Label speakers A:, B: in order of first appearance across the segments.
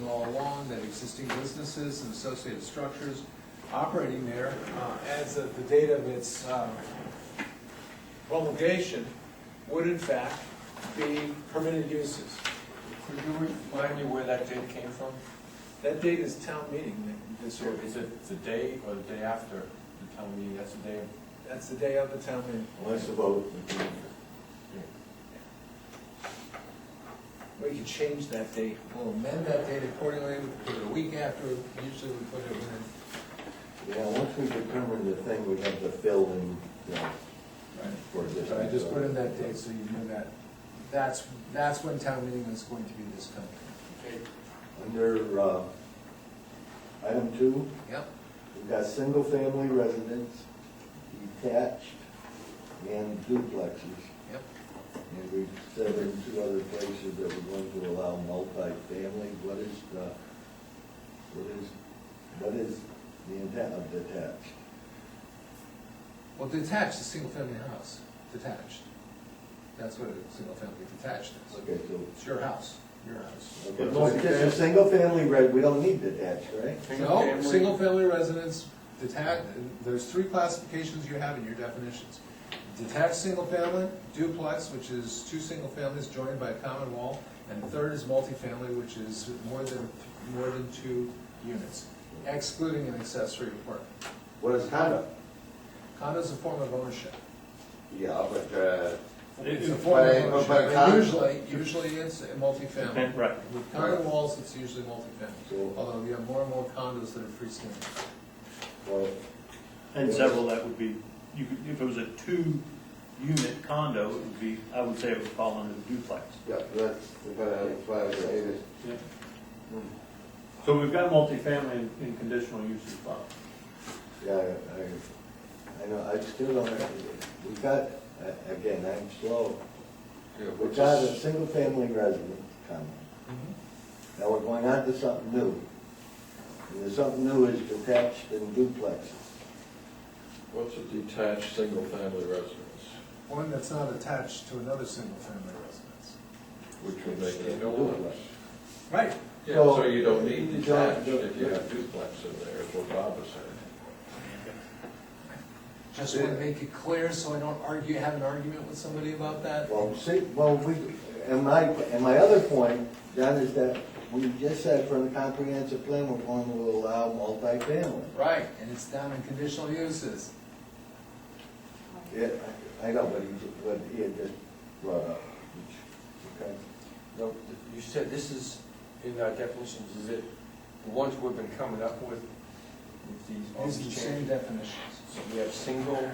A: found that existing businesses and associated structures operating there, uh, as of the date of its um, promulgation, would in fact be permitted uses. Could you remind me where that date came from? That date is town meeting, this
B: So
A: ordinance.
B: is it the day or the day after the town meeting, that's the day?
A: That's the day of the town meeting.
B: Unless the vote.
A: We could change that date. We'll amend that date accordingly, we could put it a week after, usually we put it within.
C: Yeah, once we determine the thing, we have to fill in, you know, for this.
A: So I just put in that date so you knew that. That's, that's when town meeting is going to be this coming.
C: Under, uh, item two,
A: Yep.
C: we've got single-family residence, detached, and duplexes.
A: Yep.
C: And we've said in two other places that we're going to allow multifamily, what is the, what is, what is the intent of detached?
A: Well, detached is single-family house, detached. That's what a single-family detached is.
C: Okay, so
A: It's your house, your house.
C: Okay, so it's just a single family red, we don't need detached, right?
A: No, single-family residence, detached, there's three classifications you have in your definitions. Detached single-family, duplex, which is two single families joined by a common wall, and the third is multifamily, which is more than, more than two units, excluding an accessory apartment.
C: What is condo?
A: Condo is a form of ownership.
C: Yeah, but, uh,
A: It's a
C: But-
A: form of
C: but- but
A: ownership,
C: con-
A: and usually, usually it's a multifamily.
B: Right.
A: With condo
C: Right.
A: walls, it's usually multifamily,
C: So-
A: although you have more and more condos that are freestanding.
C: well,
D: And several that would be, you could, if it was a two-unit condo, it would be, I would say it would fall under the duplex.
C: yeah, that's, that's why I was saying this.
D: Mm. So we've got multifamily in- in conditional use as well.
C: Yeah, I, I know, I still don't, we got, a- again, I'm slow. We got a single family residence condo. Now we're going on to something new. And the something new is detached and duplexes.
E: What's a detached, single-family residence?
A: One that's not attached to another single-family residence.
E: Which would make it a
C: Duplex.
E: duplex.
A: Right.
E: Yeah, so you don't
C: So-
E: need detached if you have duplex in there, is what Bob was saying.
A: Just want to make it clear, so I don't argue, have an argument with somebody about that.
C: Well, see, well, we, and my, and my other point, John, is that we just said from the comprehensive plan, we're going to allow multifamily.
A: Right, and it's down in conditional uses.
C: Yeah, I I know, but he, but he had just brought up, which, okay.
F: No, you said this is, in our definitions, is it the ones we've been coming up with, with these, all
A: These are the
F: these
A: same
F: changes?
A: definitions.
F: So we have single,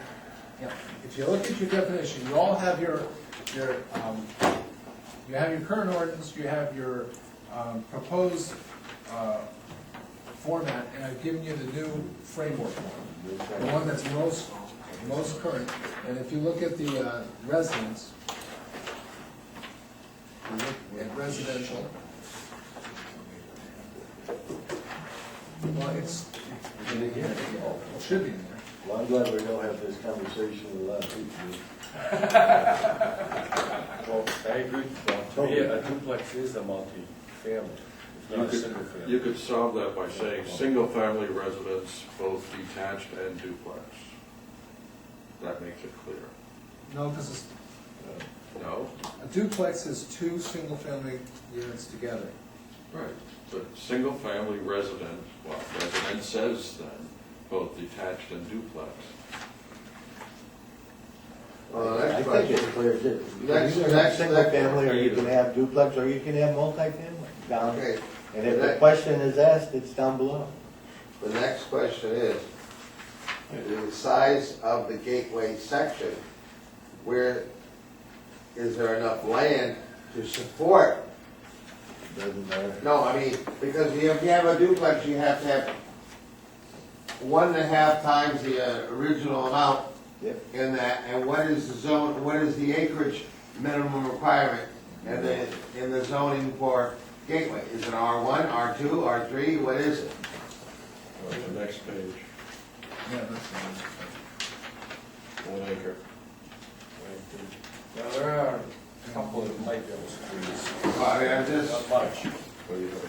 A: Yeah, if you look at your definition, you all have your, your, um, you have your current ordinance, you have your, um, proposed, uh, format, and I've given you the new framework one. the one that's most, most current, and if you look at the uh, residence, you look at residential. Well, it's, it should be in there.
C: Well, I'm glad we don't have this conversation with a lot of people.
F: well, I agree, well, to me, a duplex is a multi-family, it's
E: You
F: not a
E: could-
F: single family.
E: You could solve that by saying, single-family residence, both detached and duplex. That makes it clear.
A: No, because it's,
E: No?
A: a duplex is two single-family units together.
E: Right. But single-family resident, well, resident says then, both detached and duplex.
C: Well, I think it clears it. You
G: Next-
C: can have
G: next-
C: single
G: next-
C: family, or you can have duplex, or you can have multifamily down.
G: Okay,
C: And if the
G: Next.
C: question is asked, it's down below.
G: the next question is, the size of the gateway section, where, is there enough land to support?
C: Doesn't matter.
G: No, I mean, because if you have a duplex, you have to have one and a half times the uh, original amount
C: Yep.
G: in that, and what is the zone, what is the acreage minimum requirement in the, in the zoning for gateway? Is it R one, R two, R three, what is it?
E: On the next page,
A: Yeah, that's.
E: one acre.
F: Now, there are a couple of light bills, trees,
G: Well, I mean, I'm just,
F: not much,
E: What do you have,